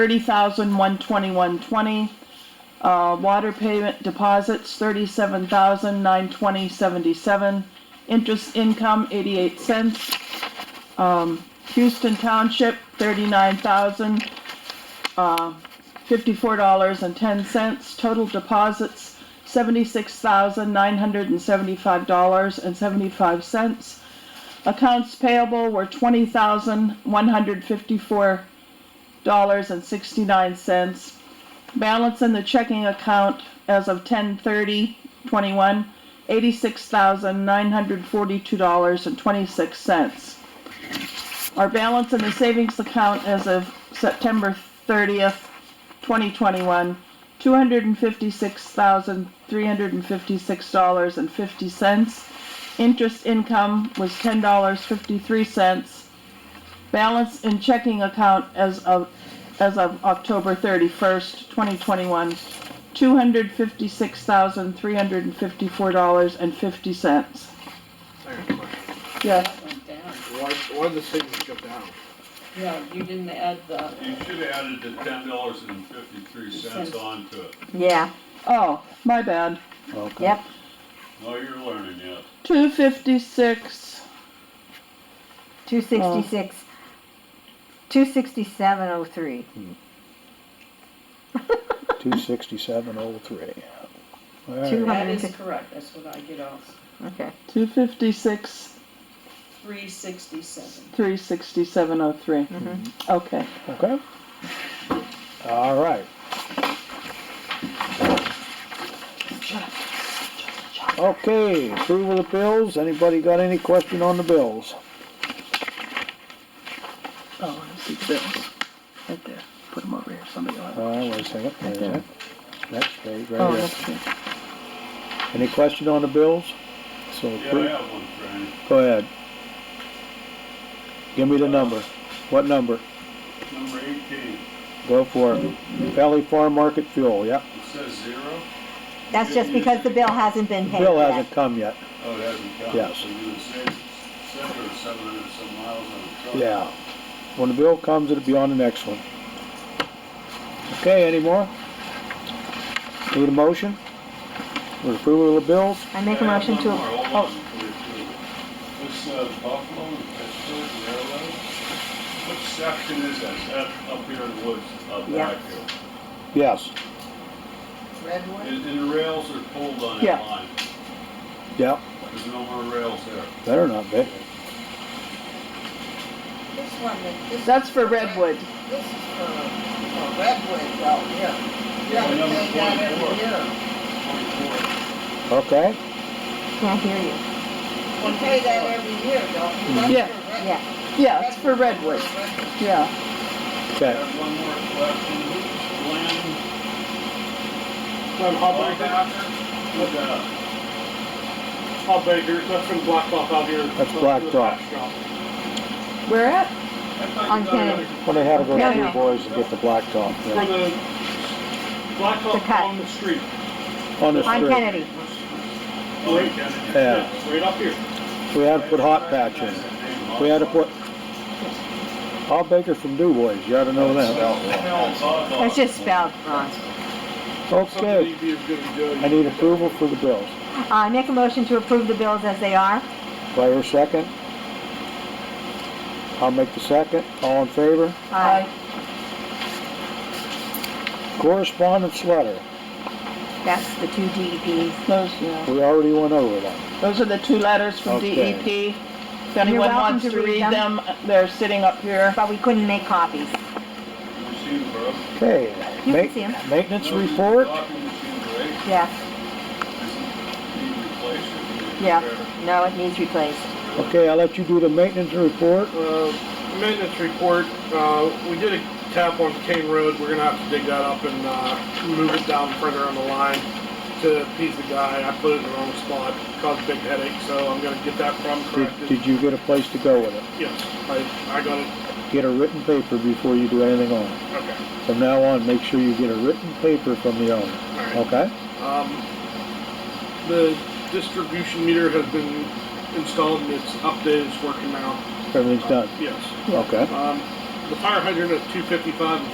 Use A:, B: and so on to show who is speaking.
A: thirty thousand one twenty-one twenty. Uh, water payment deposits, thirty-seven thousand nine twenty seventy-seven. Interest income, eighty-eight cents. Um, Houston Township, thirty-nine thousand, uh, fifty-four dollars and ten cents. Total deposits, seventy-six thousand nine hundred and seventy-five dollars and seventy-five cents. Accounts payable were twenty thousand one hundred fifty-four dollars and sixty-nine cents. Balance in the checking account as of ten thirty twenty-one, eighty-six thousand nine hundred forty-two dollars and twenty-six cents. Our balance in the savings account as of September thirtieth, twenty twenty-one, two hundred and fifty-six thousand three hundred and fifty-six dollars and fifty cents. Interest income was ten dollars fifty-three cents. Balance in checking account as of, as of October thirty-first, twenty twenty-one, two hundred fifty-six thousand, three hundred and fifty-four dollars and fifty cents.
B: I got a question.
A: Yes,
C: That went down.
B: Why, why did the savings go down?
C: No, you didn't add the,
D: You should have added the ten dollars and fifty-three cents onto it.
E: Yeah,
A: oh, my bad.
E: yep.
D: No, you're learning yet.
A: Two fifty-six,
E: Two sixty-six, two sixty-seven oh three.
F: Two sixty-seven oh three. All
E: Two
F: right,
E: hun-
C: that is correct, that's what I get off,
E: Okay.
A: two fifty-six,
C: three sixty-seven.
A: three sixty-seven oh three. Okay.
F: okay. All right. Okay, approval of bills. Anybody got any question on the bills?
A: Oh, I see the bills. Right there. Put them over here. Somebody will have
F: All right, Uh, wait a second. Wait a second. Next page,
A: Oh,
F: right here.
A: that's good.
F: Any question on the bills? So,
D: Yeah, I have one, Fran.
F: go ahead. Give me the number. What number?
D: Number eighteen,
F: Go for it. Valley Farm Market Fuel, yep.
D: it says zero.
E: That's just because the bill hasn't been paid
F: Bill
E: yet.
F: hasn't come yet.
D: Oh, it hasn't come.
F: Yes.
D: So you would say seven or seven hundred some miles on the truck.
F: Yeah. When the bill comes, it'll be on the next one. Okay, any more? Need a motion? With approval of the bills?
E: I make a motion
D: I
E: to,
D: have one more. Hold on
E: oh,
D: before you do it. This uh, Buffalo and Pittsburgh Railroad, what section is that? Is that up here in the woods, up
E: Yeah.
D: back here?
F: Yes,
C: Redwood?
D: And, and the rails are pulled on
A: Yeah.
D: that line.
F: yep,
D: There's no more rails there.
F: better not be.
G: This one, that- this.
A: That's for Redwood.
G: This is for, for Redwood, though, yeah.
D: Yeah,
G: Yeah,
D: number
G: they got it
D: 24.
G: here.
D: Twenty-four.
F: Okay,
E: can't hear you.
G: We pay that every year, don't we? That's
A: Yeah.
G: for Red-
E: Yeah,
A: Yeah, it's for Redwood.
G: Redwood.
A: Yeah.
D: I
F: okay.
D: have one more question. Who's Glenn
H: I'm Hallbaker,
D: Hallbacker? Who's that?
H: Hallbaker, uh, that's from Blacktop out here.
F: That's Blacktop.
A: Where at?
D: I thought you
E: on
D: got another-
E: Kennedy.
F: When they had to go
E: No,
F: to
E: no.
F: your boys and get the blacktop,
H: From
F: yeah,
H: the
E: The
H: Blacktop
E: cut.
H: on the street,
F: on the
E: on
F: street.
E: Kennedy.
D: Oh, you got it.
F: Yeah,
H: right up here.
F: we had to put hot patch in. We had to put, Bob Baker from Du Bois, you ought to know that.
E: That's just spelled wrong.
H: Something
F: Okay,
H: you'd be as good as doing.
F: I need approval for the bills.
E: Uh, I make a motion to approve the bills as they are.
F: Do I hear a second? I'll make the second. All in favor?
E: Aye.
F: Correspondence letter.
E: That's the two DEPs.
A: Those, yeah.
F: We already went over that.
A: Those are the two letters from
F: Okay.
A: DEP. If anyone
E: welcome
A: wants
E: to
A: to
E: read
A: read
E: them.
A: them, they're sitting up here.
E: But we couldn't make copies.
D: Machine broke.
F: Okay.
E: You can
F: ma-
E: see 'em.
F: Maintenance report.
D: Coffee machine breaks. Is
E: Yeah,
D: it being replaced or being repaired?
E: yeah. No, it needs replaced.
F: Okay, I'll let you do the maintenance report.
H: Uh, maintenance report, uh, we did a tap on Kane Road, we're gonna have to dig that up and, uh, move it down further on the line to appease the guy, I put it in the wrong spot, caused a big headache, so I'm gonna get that problem
F: Did,
H: corrected.
F: did you get a place to go with it?
H: Yes, I, I got it,
F: Get a written paper before you do anything on it.
H: okay,
F: From now on, make sure you get a written paper from the owner,
H: alright.
F: okay?
H: Um, the distribution meter has been installed and it's updated, it's working now.
F: Everything's done,
H: Yes.
F: okay?
H: Um, the fire hydrant at two fifty-five